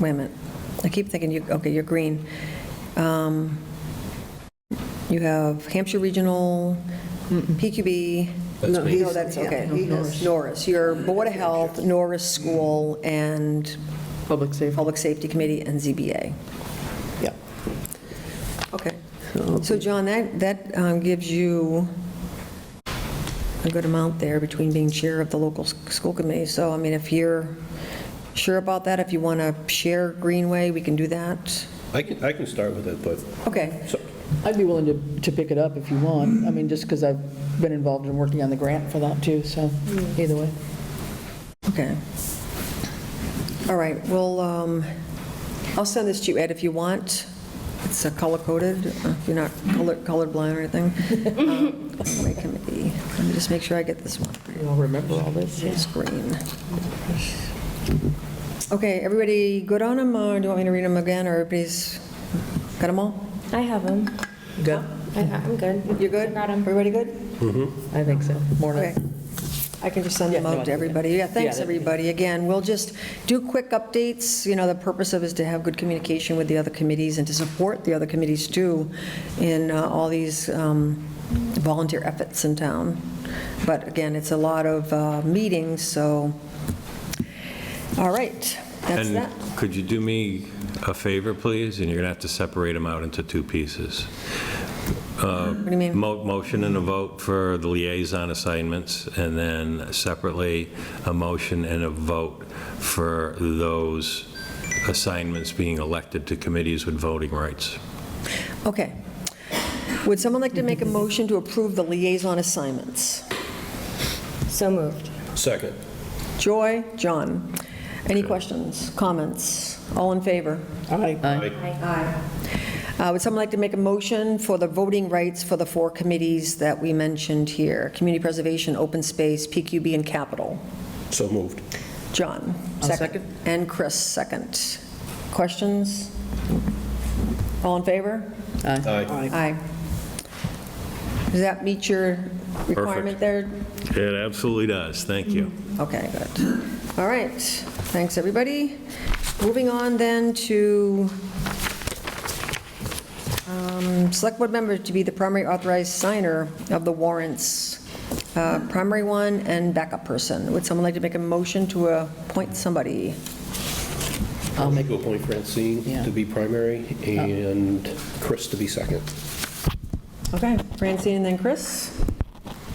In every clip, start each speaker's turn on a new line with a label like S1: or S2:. S1: wait a minute, I keep thinking you, okay, you're green. Um, You have Hampshire Regional, PQB.
S2: That's No, me. he's-
S1: No, that's,
S2: yeah,
S1: okay.
S2: he has-
S1: Norris, your Board of Health, Norris School, and
S2: Public safety.
S1: Public Safety Committee, and ZBA.
S2: Yeah.
S1: Okay. So John, that, that um, gives you a good amount there between being chair of the local s- school committee. So, I mean, if you're sure about that, if you want to share Greenway, we can do that.
S3: I can, I can start with it, but,
S1: Okay,
S3: so,
S2: I'd be willing to, to pick it up if you want. I mean, just because I've been involved in working on the grant for that too, so either way.
S1: okay. All right, well, um, I'll send this to you, Ed, if you want. It's uh, color-coded, uh, if you're not color colorblind or anything. Um, Greenway Committee, let me just make sure I get this one.
S2: You all remember all this?
S1: It's green. Okay, everybody good on them, or do you want me to read them again, or everybody's, got them all?
S4: I have them.
S2: Good.
S4: I'm good.
S1: You're good?
S4: Got 'em.
S1: Everybody good?
S2: I think so.
S1: Okay.
S2: Morning.
S1: I can just send them
S2: Yeah, no,
S1: out to
S2: I think-
S1: everybody. Yeah, thanks,
S2: that'd be-
S1: everybody. Again, we'll just do quick updates. You know, the purpose of is to have good communication with the other committees and to support the other committees too in uh, all these um, volunteer efforts in town. But again, it's a lot of uh, meetings, so, all right, that's that.
S5: And could you do me a favor, please? And you're going to have to separate them out into two pieces.
S1: What do you mean?
S5: Mo- Motion and a vote for the liaison assignments, and then separately, a motion and a vote for those assignments being elected to committees with voting rights.
S1: Okay. Would someone like to make a motion to approve the liaison assignments?
S4: So moved.
S3: second.
S1: Joy, John. Any questions, comments? All in favor?
S2: Aye.
S1: Uh, Would someone like to make a motion for the voting rights for the four committees that we mentioned here? Community Preservation, Open Space, PQB, and Capital.
S3: So moved.
S1: John?
S2: I'll second.
S1: And Chris, second. Questions? All in favor?
S3: Aye.
S1: Aye. Does that meet your requirement there,
S5: It absolutely does. Thank you.
S1: Okay, good. All right, thanks, everybody. Moving on then to um, Select Board member to be the primary authorized signer of the warrants, uh, primary one and backup person. Would someone like to make a motion to appoint somebody?
S2: I'll make,
S3: Go appoint Francine
S2: Yeah. Oh.
S3: to be primary and Chris to be second.
S1: Okay, Francine and then Chris.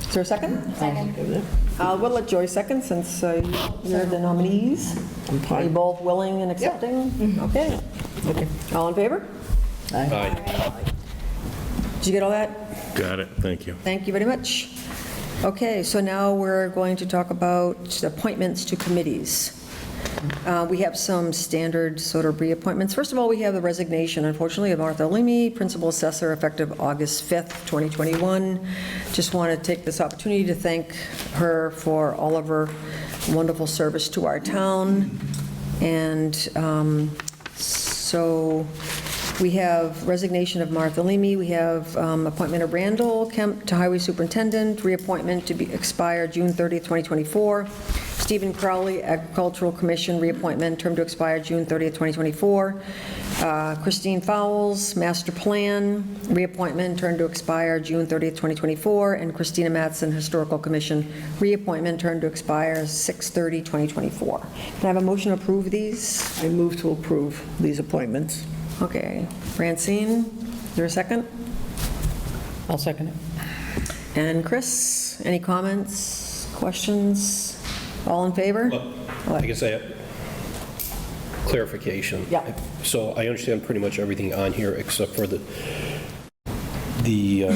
S1: Is there a second?
S2: Second.
S1: Uh, We'll let Joy second since uh, you're the nominees. Are you both willing and accepting? Okay. All in favor?
S3: Aye.
S1: Did you get all that?
S5: Got it. Thank you.
S1: Thank you very much. Okay, so now we're going to talk about appointments to committees. Uh, We have some standard sort of reappointments. First of all, we have the resignation, unfortunately, of Martha Leamy, Principal Assessor, effective August 5th, 2021. Just want to take this opportunity to thank her for all of her wonderful service to our town. And um, so we have resignation of Martha Leamy, we have um, appointment of Randall Kemp to Highway Superintendent, reappointment to be expire June 30th, 2024. Stephen Crowley, Agricultural Commission, reappointment, term to expire June 30th, 2024. Uh, Christine Fowles, Master Plan, reappointment, term to expire June 30th, 2024. And Christina Mattson, Historical Commission, reappointment, term to expire 6/30/2024. Can I have a motion to approve these?
S6: I move to approve these appointments.
S1: Okay, Francine, is there a second?
S2: I'll second it.
S1: And Chris, any comments, questions? All in favor?
S3: I guess I have clarification.
S1: Yeah.
S3: So I understand pretty much everything on here except for the, the, uh,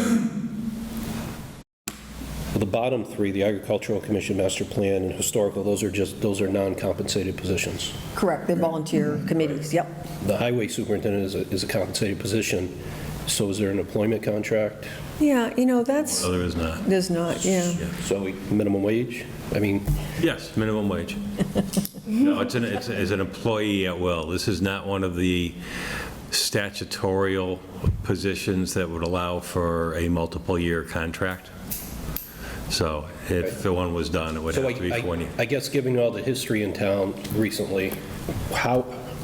S3: well, the bottom three, the Agricultural Commission, Master Plan, and Historical, those are just, those are non-compensated positions.
S1: Correct, they're volunteer committees, yep.
S3: The highway superintendent is a, is a compensated position, so is there an employment contract?
S1: Yeah, you know, that's,
S5: No, there is not.
S1: there's not, yeah.
S3: So we- minimum wage? I mean,
S5: Yes, minimum wage. No, it's an, it's it's an employee at will. This is not one of the statutorial positions that would allow for a multiple-year contract. So if the one was done, it would
S3: so
S5: have to be
S3: I-
S5: for one
S3: I,
S5: year.
S3: I guess given all the history in town recently, how,